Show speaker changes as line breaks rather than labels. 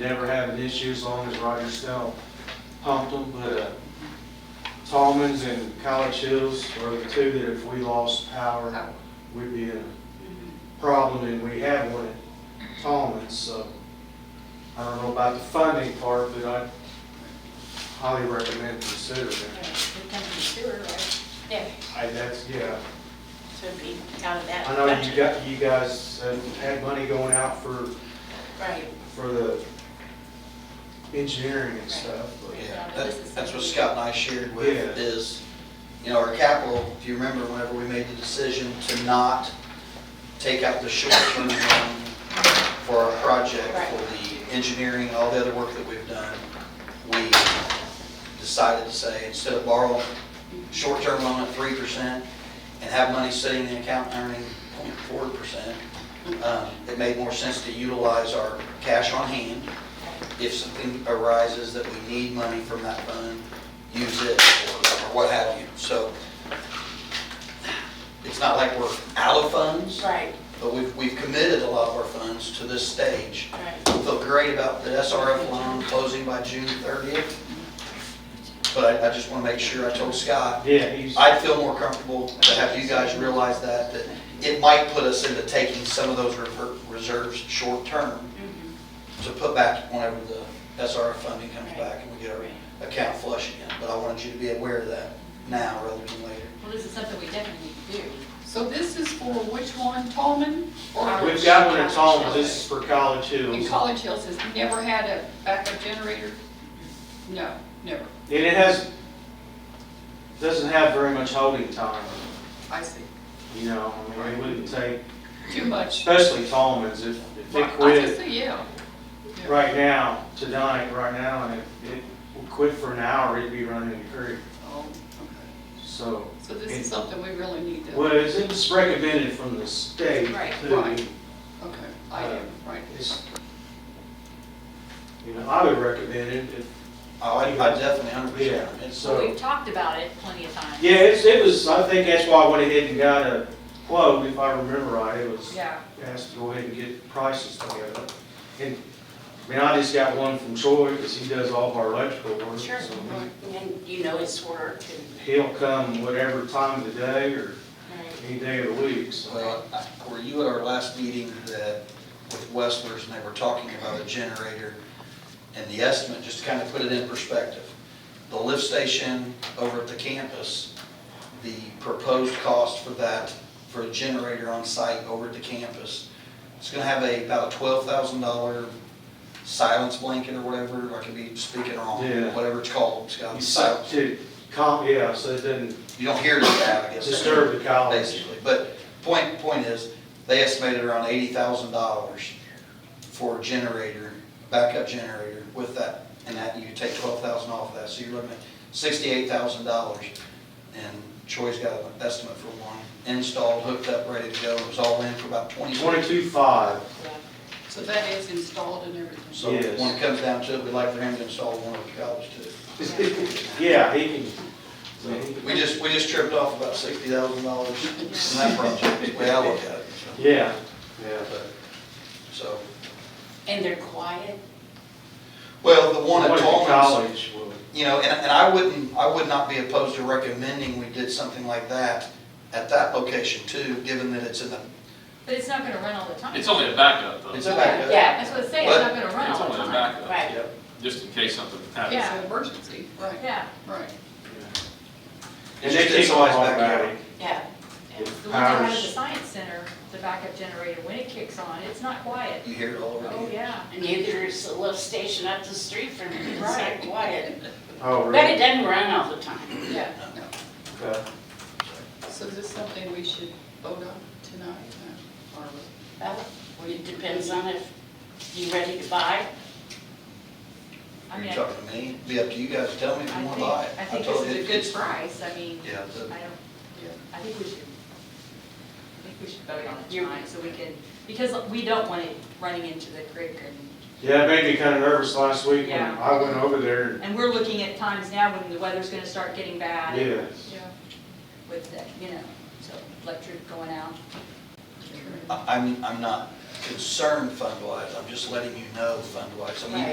Never have an issue as long as Roger Snell pumped them, but, uh, Tallman's and College Hills are the two that if we lost power, would be a
Mm,
problem, and we have one at Tallman's, so. I don't know about the funding part, but I highly recommend considering
Yeah,
it.
It comes from sewer, right? Yeah,
I, that's, yeah.
so it'd be out of that.
I know you
budget.
got, you guys uh, had money going out for,
Right.
for the engineering and stuff, but,
Yeah, that- that's what Scott and I shared with
Yeah.
is, you know, our capital, if you remember, whenever we made the decision to not take out the short-term loan for our project,
Right.
for the engineering, and all the other work that we've done, we decided to say, instead of borrow short-term loan at three percent and have money sitting in the account earning 0.4 percent, um, it made more sense to utilize our cash on hand if something arises that we need money from that fund, use it, or what have you. So it's not like we're out of funds,
Right,
but we've, we've committed a lot of our funds to this stage.
right.
We Feel great about the SRF loan closing by June 30th, but I, I just want to make sure, I told Scott,
yeah, he's,
I'd feel more comfortable to have you guys realize that, that it might put us into taking some of those rever- reserves short-term
Mhm.
to put back whenever the SRF funding comes back and we get our account flush again. But I wanted you to be aware of that now rather than later.
Well, this is something we definitely need to do.
So this is for which one, Tallman? or
we've got one at Tallman, this is for College
And
Hills.
College Hills has never had a backup generator? No, never.
And it has, doesn't have very much holding time,
I see.
you know, I mean, it wouldn't take,
Too much.
especially Tallman's, if, if
I
it
just
quit
say, yeah. Yeah.
right now, tonight, right now, and if it would quit for an hour, it'd be running in the creek,
Oh, okay.
so.
So this is something we really need to,
Well, it's- it's recommended from the state
Right,
too.
right. okay, I do, right.
It's, you know, I would recommend it if,
Oh, I I definitely, hundred percent.
Yeah.
It's,
Well,
So-
we've talked about it plenty of times.
yeah, it's, it was, I think that's why I went ahead and got a quote, if I remember right, it was
Yeah.
asked to go ahead and get prices together. And, I mean, I just got one from Troy, because he does all of our electrical work.
Sure.
so
And you know his work and,
He'll come whatever time of the day or
right.
any day of the week, so.
well, I- were you at our last meeting that with Westlers and they were talking about a generator and the estimate, just to kind of put it in perspective? The lift station over at the campus, the proposed cost for that, for a generator on site over at the campus, it's gonna have a, about a twelve thousand dollar silence blanket or whatever, I could be speaking wrong,
Yeah.
whatever it's called, Scott.
You
Silence
suck to, com, yeah, so it doesn't
you don't hear it now, I guess.
disturb the college.
Basically, but point, point is, they estimated around eighty thousand dollars for a generator, backup generator with that, and that, you take twelve thousand off that, so you're looking at sixty-eight thousand dollars. And Troy's got an estimate for one, installed, hooked up, ready to go, it was all in for about twenty.
Twenty-two-five,
So that is installed and everything.
So
Yes.
when it comes down to it, we'd like for him to install one of the college too.
yeah, he can, I mean, he can-
We just, we just tripped off about sixty thousand dollars in that project, the way I look at it, so.
Yeah, yeah.
So,
And they're quiet.
well, the one at
Wanted to
Tallman's,
College will,
you know, and, and I wouldn't, I would not be opposed to recommending we did something like that at that location too, given that it's in the,
But it's not gonna run all the time.
It's only a backup though.
it's a backup.
Yeah.
That's what I say, it's not gonna run
It's
all the
only a
time.
backup.
Right.
Just in case something
It's
happens.
an emergency, right,
Yeah,
right.
And they keep on
It's
talking
back
about
out.
it.
Yeah,
the
If
one that has the
powers-
science center, the backup generator, when it kicks on, it's not quiet.
You hear it all over
Oh,
again.
yeah.
and neither is the lift station up the street from me, it's
Right.
not quiet.
Oh,
But it
really?
doesn't run all the time.
Yeah.
Okay.
So is this something we should vote on tonight? Or
Well, it depends on if you ready to buy.
I
You're
mean, I
talking to me, it'd be up to you guys, tell me if you want to
think,
buy it.
I think
told
this
you
is a good
it's-
price, I mean,
Yeah,
I
the-
don't,
Yeah.
I think we should, I think we should vote on it
You're-
tonight, so we can, because we don't want it running into the creek and,
Yeah, it made me kind of nervous last week when
Yeah.
I went over there.
and we're looking at times now when the weather's gonna start getting bad. and-
Yeah.
Yeah.
with the, you know, so electric going out.
I- I'm, I'm not concerned fund-wise, I'm just letting you know fund-wise. I mean,
Right.